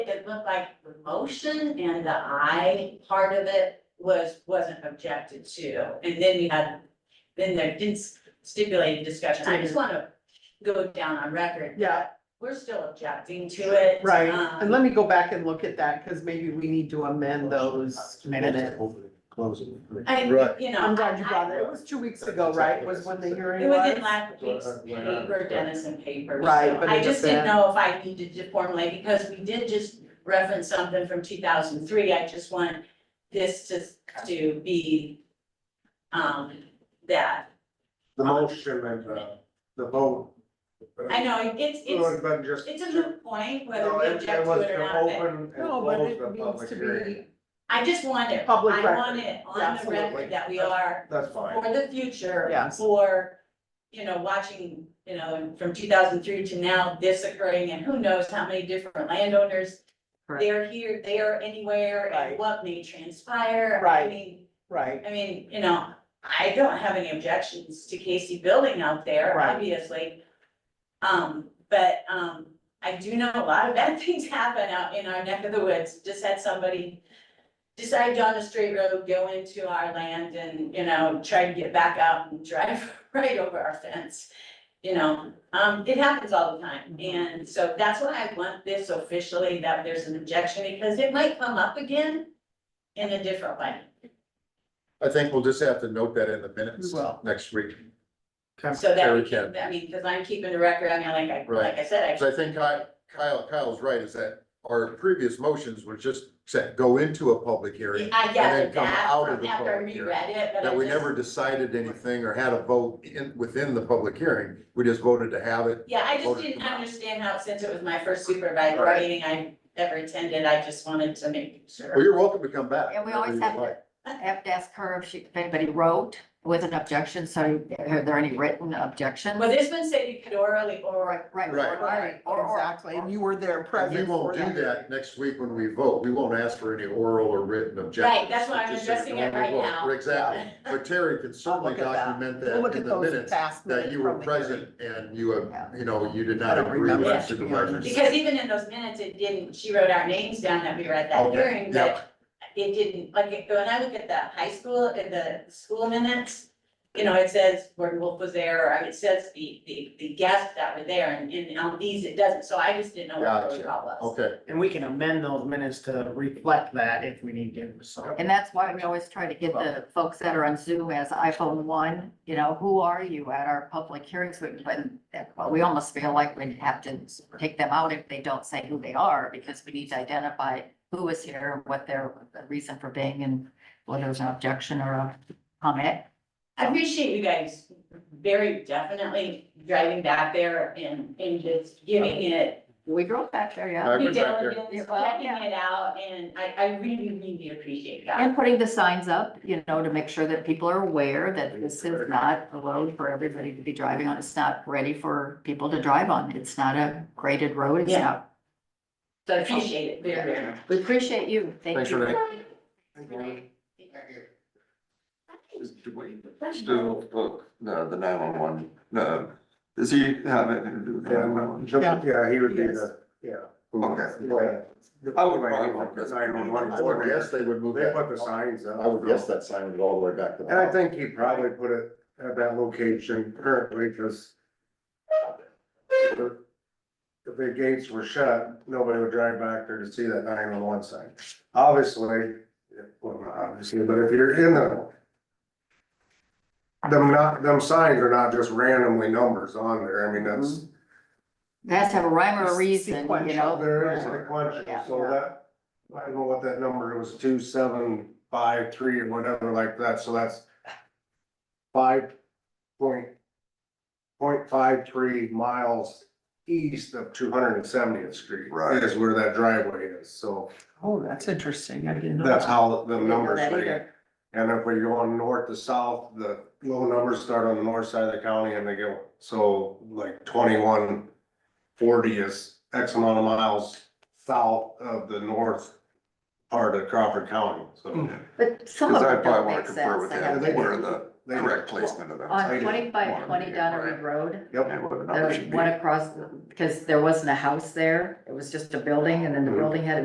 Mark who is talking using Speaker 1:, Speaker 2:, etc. Speaker 1: it looked like the motion and the I part of it was, wasn't objected to. And then we had, then there did stipulate discussion, I just wanna go down on record.
Speaker 2: Yeah,
Speaker 1: We're still objecting to it.
Speaker 2: right,
Speaker 1: um,
Speaker 2: and let me go back and look at that, because maybe we need to amend those minutes.
Speaker 3: Close it.
Speaker 1: I,
Speaker 4: Right.
Speaker 1: you know.
Speaker 2: I'm glad you brought
Speaker 1: I-
Speaker 2: it, it was two weeks ago, right, was when the hearing
Speaker 1: It was
Speaker 2: was?
Speaker 1: in last week's
Speaker 4: Why not?
Speaker 1: paper, Dennis and paper.
Speaker 2: Right,
Speaker 1: so
Speaker 2: but
Speaker 1: I
Speaker 2: it's a
Speaker 1: just didn't
Speaker 2: bad-
Speaker 1: know if I needed to formulate, because we did just reference something from two thousand three, I just want this to, to be um, that.
Speaker 3: The motion and the, the vote.
Speaker 1: I know, it's, it's,
Speaker 3: It wasn't just.
Speaker 1: it's a moot point whether
Speaker 3: No,
Speaker 1: we
Speaker 3: it-
Speaker 1: object
Speaker 3: it
Speaker 1: to
Speaker 3: was
Speaker 1: it or
Speaker 3: to
Speaker 1: not, but
Speaker 3: open and
Speaker 2: No, but
Speaker 3: close
Speaker 2: it
Speaker 3: the
Speaker 2: needs
Speaker 3: public
Speaker 2: to
Speaker 3: hearing.
Speaker 2: be,
Speaker 1: I just want it, I
Speaker 2: Public
Speaker 1: want
Speaker 2: record.
Speaker 1: it
Speaker 2: Yeah,
Speaker 1: on the
Speaker 3: absolutely.
Speaker 1: record that we are
Speaker 3: That's fine.
Speaker 1: for the future.
Speaker 2: Yes.
Speaker 1: For, you know, watching, you know, from two thousand three to now, this occurring, and who knows how many different landowners.
Speaker 2: Correct.
Speaker 1: They're here, they are anywhere, and
Speaker 2: Right.
Speaker 1: what may transpire. I
Speaker 2: Right.
Speaker 1: mean,
Speaker 2: right,
Speaker 1: I mean, you know, I don't have any objections to Casey building out there,
Speaker 2: Right.
Speaker 1: obviously. Um, but, um, I do know a lot of bad things happen out in our neck of the woods, just had somebody decide on a straight road, go into our land and, you know, try to get back out and drive right over our fence. You know, um, it happens all the time,
Speaker 2: Mhm.
Speaker 1: and so that's why I want this officially, that there's an objection, because it might come up again in a different way.
Speaker 4: I think we'll just have to note that in the minutes
Speaker 2: We will.
Speaker 4: next week.
Speaker 1: So that we
Speaker 4: Terry
Speaker 1: can,
Speaker 4: can.
Speaker 1: I mean, because I'm keeping the record, I mean, like I,
Speaker 4: Right.
Speaker 1: like I said, I.
Speaker 4: So I think Ky- Kyle, Kyle's right, is that our previous motions were just set, go into a public hearing.
Speaker 1: I
Speaker 4: then
Speaker 1: gathered
Speaker 4: come
Speaker 1: that
Speaker 4: out of
Speaker 1: from
Speaker 4: the
Speaker 1: after I
Speaker 4: public hearing.
Speaker 1: reread it, but I
Speaker 4: That we
Speaker 1: just-
Speaker 4: never decided anything or had a vote in, within the public hearing. We just voted to have it.
Speaker 1: Yeah, I just
Speaker 4: voted
Speaker 1: didn't
Speaker 4: to come out.
Speaker 1: understand how, since it was my first supervisor
Speaker 4: Right.
Speaker 1: meeting I ever attended, I just wanted to make
Speaker 4: Well,
Speaker 1: sure.
Speaker 4: you're welcome to come back.
Speaker 5: Yeah, we
Speaker 4: whenever
Speaker 5: always
Speaker 4: you'd
Speaker 5: have to-
Speaker 4: like.
Speaker 5: I have to ask her if she, if anybody wrote with an objection, so are there any written objections?
Speaker 1: Well, this one said you could orally or,
Speaker 5: Right, right,
Speaker 4: Right.
Speaker 5: right. or- or-
Speaker 2: exactly, and you were there
Speaker 4: And
Speaker 2: present.
Speaker 4: we won't
Speaker 2: for
Speaker 4: do that next week when we vote. We won't ask for any oral or written objections.
Speaker 1: Right, that's why I'm
Speaker 4: Just so you
Speaker 1: addressing
Speaker 4: know
Speaker 1: it
Speaker 4: when we
Speaker 1: right
Speaker 4: vote.
Speaker 1: now.
Speaker 4: Exactly. But Terry can certainly
Speaker 2: look at that.
Speaker 4: document
Speaker 2: We'll
Speaker 4: that
Speaker 2: look
Speaker 4: in
Speaker 2: at
Speaker 4: the
Speaker 2: those
Speaker 4: minutes,
Speaker 2: past minutes.
Speaker 4: that you were
Speaker 2: from the hearing.
Speaker 4: present and you, uh,
Speaker 5: Yeah.
Speaker 4: you know, you did
Speaker 2: I
Speaker 4: not
Speaker 2: don't
Speaker 4: agree
Speaker 2: remember,
Speaker 4: with
Speaker 2: to be
Speaker 4: supervisors.
Speaker 2: honest.
Speaker 1: because even in those minutes, it didn't, she wrote our names down that we were at that
Speaker 4: Okay,
Speaker 1: hearing,
Speaker 4: yeah.
Speaker 1: but it didn't, like, it- when I look at the high school, at the school minutes, you know, it says Gordon Wolf was there, or it says the, the, the guests that were there, and, and on these, it doesn't, so I just didn't know what the
Speaker 4: Gotcha.
Speaker 1: protocol was.
Speaker 4: Okay,
Speaker 6: And we can amend those minutes to reflect that if we need to, so.
Speaker 5: And that's why we always try to get the folks that are on Zoom as iPhone one, you know, who are you at our public hearings? We- But but we almost feel like we have to take them out if they don't say who they are, because we need to identify who was here, what their reason for being, and whether there's an objection or a comment.
Speaker 1: I appreciate you guys very definitely driving back there and, and just giving it,
Speaker 5: We drove back there, yeah.
Speaker 4: I've
Speaker 1: due
Speaker 4: been back there.
Speaker 1: diligence,
Speaker 5: Yeah, well,
Speaker 1: checking
Speaker 5: yeah.
Speaker 1: it out, and I, I really, really appreciate that.
Speaker 5: And putting the signs up, you know, to make sure that people are aware that this is not a road for everybody to be driving on. It's not ready for people to drive on. It's not a graded road. It's
Speaker 1: Yeah.
Speaker 5: not.
Speaker 1: So I appreciate it very, very much.
Speaker 5: We appreciate you. Thank
Speaker 4: thanks for
Speaker 5: you.
Speaker 4: that.
Speaker 7: Is- Do we still book the, the nine one one, no, does he have it?
Speaker 3: Yeah, yeah, he would be the, yeah.
Speaker 7: Okay.
Speaker 3: I
Speaker 7: I would probably want this.
Speaker 4: I would guess they would move
Speaker 3: They put the
Speaker 4: that.
Speaker 3: signs up.
Speaker 4: I would guess that sign would all the way back to. the
Speaker 3: And I
Speaker 4: house.
Speaker 3: think he probably put it at that location currently, because if the gates were shut, nobody would drive back there to see that nine one one sign. Obviously, well, not obviously, but if you're in the them not, them signs are not just randomly numbers on there, I mean, that's,
Speaker 5: It has to have a rhyme or a reason, you
Speaker 2: Sequential.
Speaker 5: know?
Speaker 3: there is a question,
Speaker 5: Yeah.
Speaker 3: so that, I don't know what that number was, two, seven, five, three, or whatever like that, so that's five point, point five three miles east of two hundred and seventieth street.
Speaker 7: Right.
Speaker 3: Is where that driveway is, so
Speaker 2: Oh, that's interesting, I didn't know.
Speaker 3: that's
Speaker 2: that.
Speaker 3: how the
Speaker 5: Didn't know
Speaker 3: numbers
Speaker 5: that
Speaker 3: read.
Speaker 5: either.
Speaker 3: And if we're going north to south, the low numbers start on the north side of the county and they go, so like twenty-one forty is X amount of miles south of the north part of Crawford County, so.
Speaker 5: But some of
Speaker 7: Cause I
Speaker 5: it don't
Speaker 7: probably wanna
Speaker 5: make
Speaker 7: compare
Speaker 5: sense.
Speaker 7: with
Speaker 5: I have
Speaker 7: that,
Speaker 5: to-
Speaker 7: where the,
Speaker 3: they-
Speaker 7: correct placement of those.
Speaker 5: On twenty-five
Speaker 7: Wanted
Speaker 5: twenty
Speaker 7: to get
Speaker 5: Donnery
Speaker 7: right.
Speaker 5: Road,
Speaker 7: Yeah,
Speaker 3: Yep,
Speaker 7: what the number
Speaker 5: the
Speaker 7: should be.
Speaker 5: one across, because there wasn't a house there, it was just a building, and then the
Speaker 3: Mhm.
Speaker 5: building had a